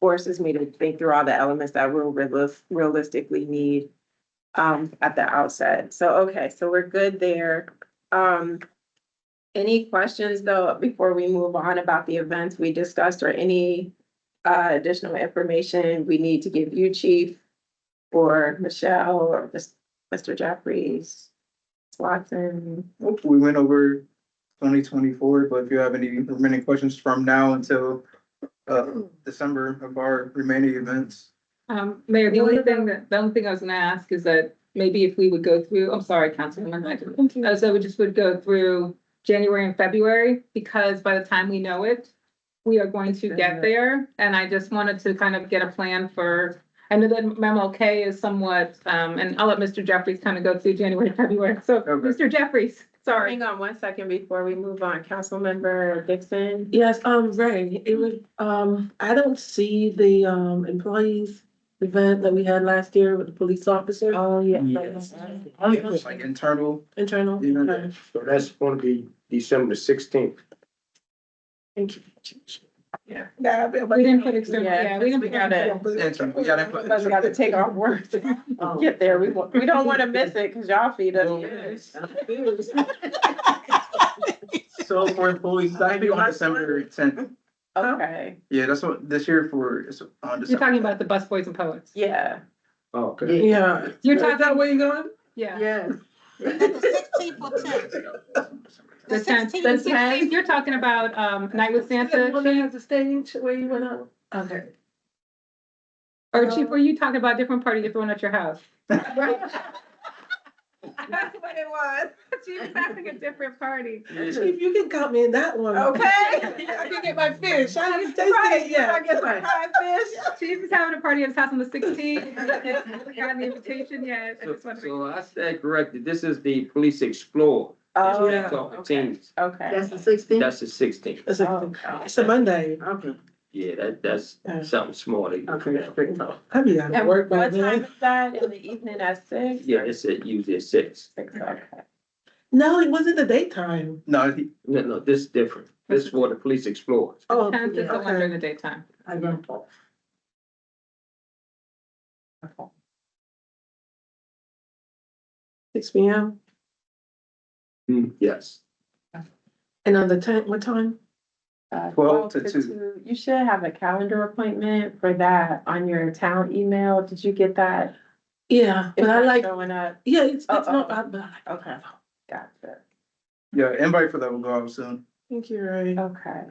forces me to think through all the elements that we'll realis- realistically need um, at the outset. So, okay, so we're good there. Um, any questions though, before we move on about the events we discussed or any uh, additional information we need to give you, Chief, or Michelle, or Mis- Mr. Jeffries, Watson? Nope, we went over twenty twenty-four, but if you have any remaining questions from now until uh December of our remaining events. Um, Mayor, the only thing that, the only thing I was gonna ask is that maybe if we would go through, I'm sorry, Councilwoman, I didn't- uh, so we just would go through January and February, because by the time we know it, we are going to get there, and I just wanted to kind of get a plan for, I know that MLK is somewhat, um, and I'll let Mr. Jeffries kind of go through January, and February, so, Okay. Mr. Jeffries, sorry. Hang on one second before we move on. Councilmember Dixon? Yes, um, Ray, it was, um, I don't see the, um, employees event that we had last year with the police officer, Oh, yeah. Yes. It's Like internal, internal. you know, Okay, So that's gonna be December sixteenth. Thank you. We didn't put external, Yeah, yeah, we didn't. we put external. gotta- internal, we gotta put. But we gotta take our words to Oh. get there. We, wa- we don't wanna miss it, cause y'all feed us. So for employees, that'd be on December tenth, Okay, yeah, that's what, this year for, it's on You're December. talking about the bus boys and poets, yeah. Oh, Okay. Yeah. you're talking, where you going? yeah. Yes. Sixteen for ten. The The tenth, the 16th, the 16th, you're talking about, um, Night with Santa, When they have the stage where you went up? Okay. or Chief, were you talking about a different party you're throwing at your house? That's what it was. She was having a different party. Chief, you can count me in that one. Okay. I didn't get my fish, I haven't tasted Right, it yeah, I yet. guess I fried fish. Chief is having a party at his house on the sixteenth, gotten the invitation yet, I just wondering. So I stand corrected, this is the police explorer. Oh, Yeah. okay. Okay. the sixteenth? That's the sixteenth. It's Oh, a, it's a Monday, Okay, Yeah, that, that's Yeah. something small. that you okay, can that's have. great. talk. I'll be out of And work what by time then. is that? In the evening at six? Yeah, it's at usually at six. Six, okay. No, it wasn't the daytime. No, he- No, no, this is different. This is for the police explorers. Oh, Tenth is the one during okay. the daytime. I don't talk. Uh, Six P M, Hmm, Yes. and on the tenth, what time? Uh, Twelve to two. You should have a calendar appointment for that on your town email. Did you get that? Yeah, Is but I that like, Showing up, yeah, it's, it's Oh, not, oh. I, but I like. okay, gotcha. yeah, invite for that will go out soon. Thank you, Ray. Okay.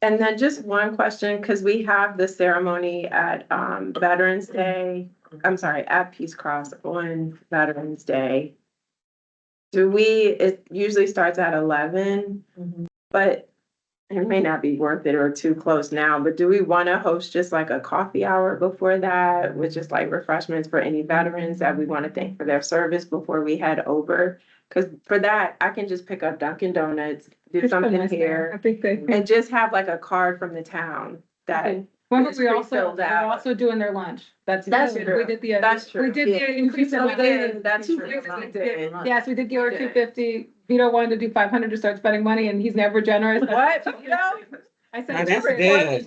And then just one question, because we have the ceremony at um, Veterans Day, I'm sorry, at Peace Cross on Veterans Day. Do we, it usually starts at eleven, Mhm. but it may not be worth it or too close now, but do we want to host just like a coffee hour before that? With just like refreshments for any veterans that we want to thank for their service before we head over? Because for that, I can just pick up Dunkin' Donuts, do It's been something nice there. here. I think they, And just have like a card from the town that, remember It's we also, pre-filled we're out. also doing their lunch, that's. That's good. true. We did the. uh, That's true. We did Yeah. the increase in. Oh, my we did. pay. That's We true. did We the- did. Yes, we did give her We two did. fifty, Vito wanted to do five hundred to start spending money, and he's never generous. What? You know? I Now, said. that's "Sure." good.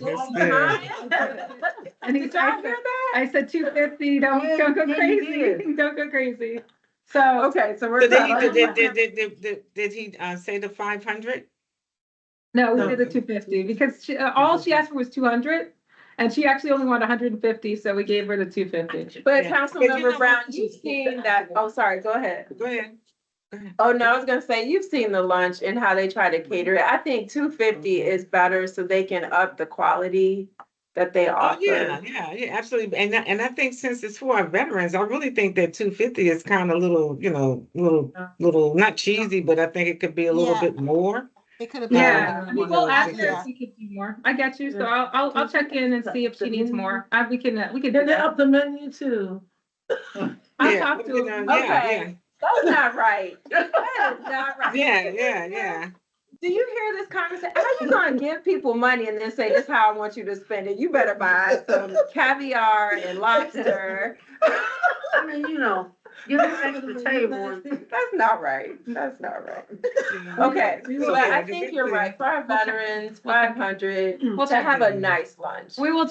Huh? And he's. Did y'all hear that? I said two fifty, don't, Yeah, don't go yeah, you crazy, don't go crazy. So, Okay, so we're. So did he, good. did, did, did, did- did, did he, uh, say the five hundred? no, we No. did the two fifty, because she, uh, all she asked for was two hundred, and she actually only wanted hundred and fifty, so we gave her the two fifty. But Yeah. But you know Councilmember what? Brown, you've seen that, oh, sorry, go ahead. Go ahead. Oh, no, I was gonna say, you've seen the lunch and how they try to Mm-hmm. cater it. I think two fifty is better so they can up the quality that they Oh, yeah, offer. yeah, yeah, absolutely. And, I- and I think since it's for our veterans, I really think that two fifty is kind of little, you know, little, little, not cheesy, but I think it could be a little Yeah. bit more. It could have been. Yeah, Yeah. I mean, we'll ask her Yeah. if she could do more, I get you, so I'll, I'll, I'll check in and see if she needs more, I, we can, uh, we can do Then they that. up the menu too. I'll Yeah, talk to you her. know, yeah, Okay. That's not right. That is not right. Yeah, yeah, yeah, yeah. Do you hear this conversation? How you gonna give people money and then say, this is how I want you to spend it? You better buy some caviar and lobster. I mean, you know, give it back to the table and That's not right. That's not right. yeah. Okay, We but will- I think you're right. For our veterans, five hundred, Mm-hmm. We'll to check. have a nice lunch. We will